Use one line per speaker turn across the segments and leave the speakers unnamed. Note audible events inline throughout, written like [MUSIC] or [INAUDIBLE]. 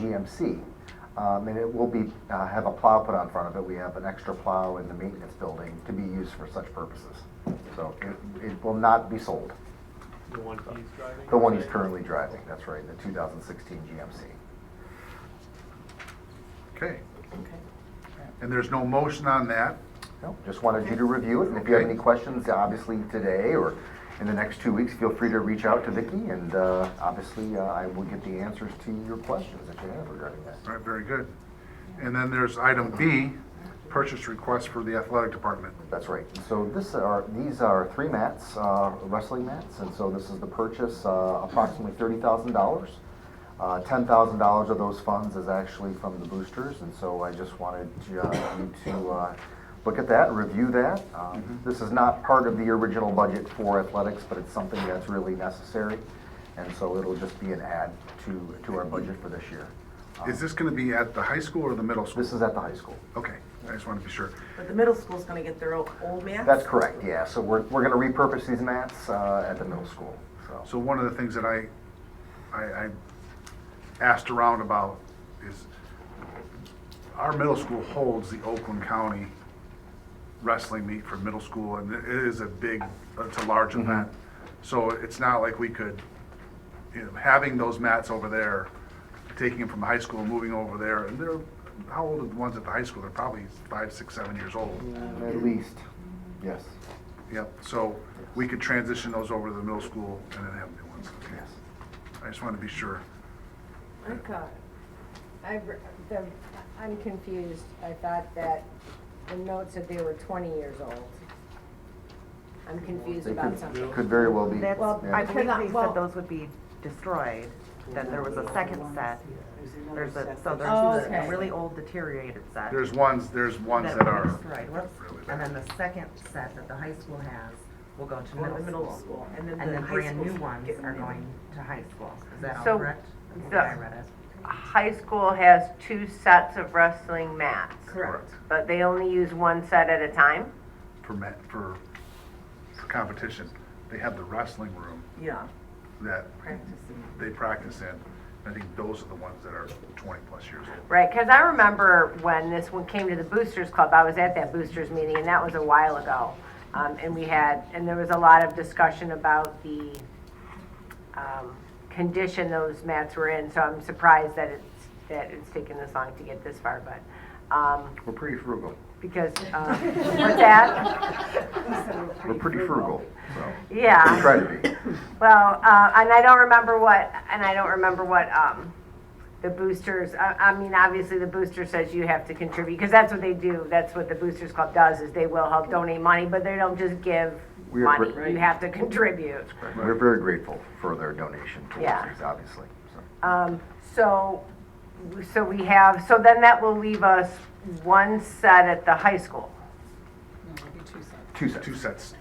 CMC. Um, And it will be, uh, have a plow put on front of it. We have an extra plow in the maintenance building to be used for such purposes. So it, it will not be sold.
The one he's driving?
The one he's currently driving, that's right, the 2016 GMC.
Okay,
Okay.
and there's no motion on that.
No, Just wanted you to review it, and if you have any questions, obviously today or in the next two weeks, feel free to reach out to Vicki, and uh, obviously, uh, I will get the answers to your questions that you have regarding that.
All right, very good. And then there's item B, purchase request for the athletic department.
That's right. So this are, these are three mats, uh, wrestling mats, and so this is the purchase, uh, approximately thirty thousand dollars. Uh, ten thousand dollars of those funds is actually from the boosters, and so I just wanted uh, you to, uh, look at that, review that. Um, This is not part of the original budget for athletics, but it's something that's really necessary, and so it'll just be an add to, to our budget for this year. Um,
Is this gonna be at the high school or the middle school?
This is at the high school.
Okay, I just wanna be sure.
But the middle school's gonna get their old, old math?
That's correct, yeah. So we're, we're going to repurpose these mats uh, at the middle school, so.
So one of the things that I, I, I asked around about is, our middle school holds the Oakland County wrestling meet for middle school, and it is a big, it's a large event. So it's not like we could, you know, having those mats over there, taking them from the high school, and moving over there, and they're, how old are the ones at the high school? They're probably five, six, seven years old.
At least, yes,
Yep, so we could transition those over to the middle school and then have new ones.
yes.
I just want to be sure.
I thought, I, re- the, I'm confused, I thought that the note said they were twenty years old. I'm confused
They
about
could-
something.
Could very well be.
That's,
yeah.
I believe
Cannot-
they
well-
said those would be destroyed, then there was a second set. There's a, so
Oh,
there's two,
okay.
a really old deteriorated set.
There's ones, there's ones
that
that
were
are,
Destroyed, whoops. and then the second set that the high school has will go to
Go to the
middle
middle
school.
school, and then
And
the
the
high
brand new
schools
ones
get
are
new.
going to high school. Is that all
So,
correct? That's the
the-
way I read it.
High school has two sets of wrestling mats.
Correct.
But they only use one set at a time?
for, ma- for, for competition, they have the wrestling room
Yeah,
that
practicing.
they practice in. I think those are the ones that are twenty plus years old.
Right, because I remember when this one came to the Boosters Club, I was at that Boosters meeting, and that was a while ago. Um, and we had, and there was a lot of discussion about the, um, condition those mats were in, so I'm surprised that it's, that it's taken this long to get this far, but, um,
We're pretty frugal.
because, um, what's that?
We're pretty frugal, so. We
Yeah.
try to be. [COUGHS]
Well, uh, and I don't remember what, and I don't remember what, um, the boosters, I, I mean, obviously the booster says you have to contribute, because that's what they do, that's what the Boosters Club does, is they will help donate money, but they don't just give
We are
money,
gr-
you have to contribute.
We're very grateful for their donation towards
Yeah.
these, obviously, so.
Um, so, so we have, so then that will leave us one set at the high school.
Two sets.
Two sets.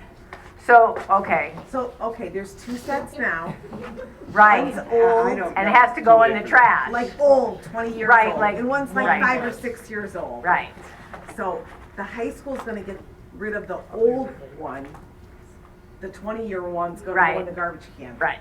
So, okay,
So, okay, there's two sets [LAUGHS] now,
right,
One's old.
and it has to go in the trash,
like old, twenty years
Right,
old,
like-
and one's like
right.
five or six years old.
right,
So the high school's gonna get rid of the old one. The twenty-year one's gonna go in
Right.
the garbage can.
right,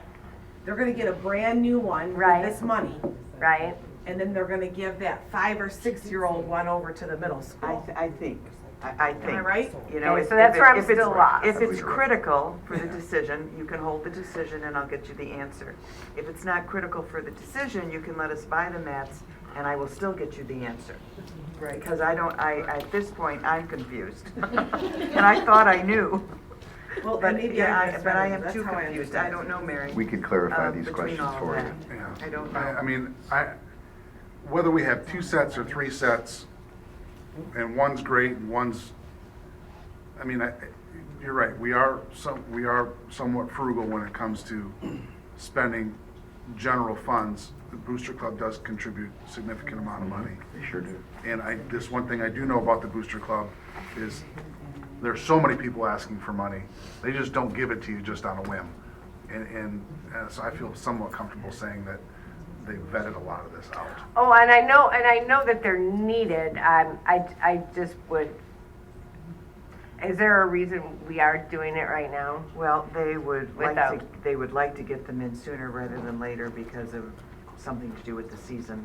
They're gonna get a brand new one with
Right.
this money,
right,
and then they're gonna give that five or six-year-old one over to the middle
I,
school.
th- I think, I, I think.
right?
You know,
Okay,
if
so that's
if it-
where I'm
if it's-
still lost.
If it's critical for the decision, you can hold the decision and I'll get you the answer. If it's not critical for the decision, you can let us buy the mats and I will still get you the answer.
Right.
Because I don't, I, at this point, I'm confused. [LAUGHS] And I thought I knew,
Well,
but,
maybe
yeah,
I
I- but I am
misread it.
too
That's how
confused.
understand
I don't
it.
know, Mary.
We could clarify
um,
these
between
questions
all
for
that.
you.
Yeah.
I don't
I
know.
mean, I, whether we have two sets or three sets, and one's great and one's, I mean, I, you're right, we are some, we are somewhat frugal when it comes to spending general funds. The Booster Club does contribute significant amount of money.
They sure do.
And I, this one thing I do know about the Booster Club is there's so many people asking for money. They just don't give it to you just on a whim. And, and uh, so I feel somewhat comfortable saying that they vetted a lot of this out.
Oh, and I know, and I know that they're needed. Um, I, I just would, is there a reason we are doing it right now?
Well, they would like to,
Without.
they would like to get them in sooner rather than later because of something to do with the season.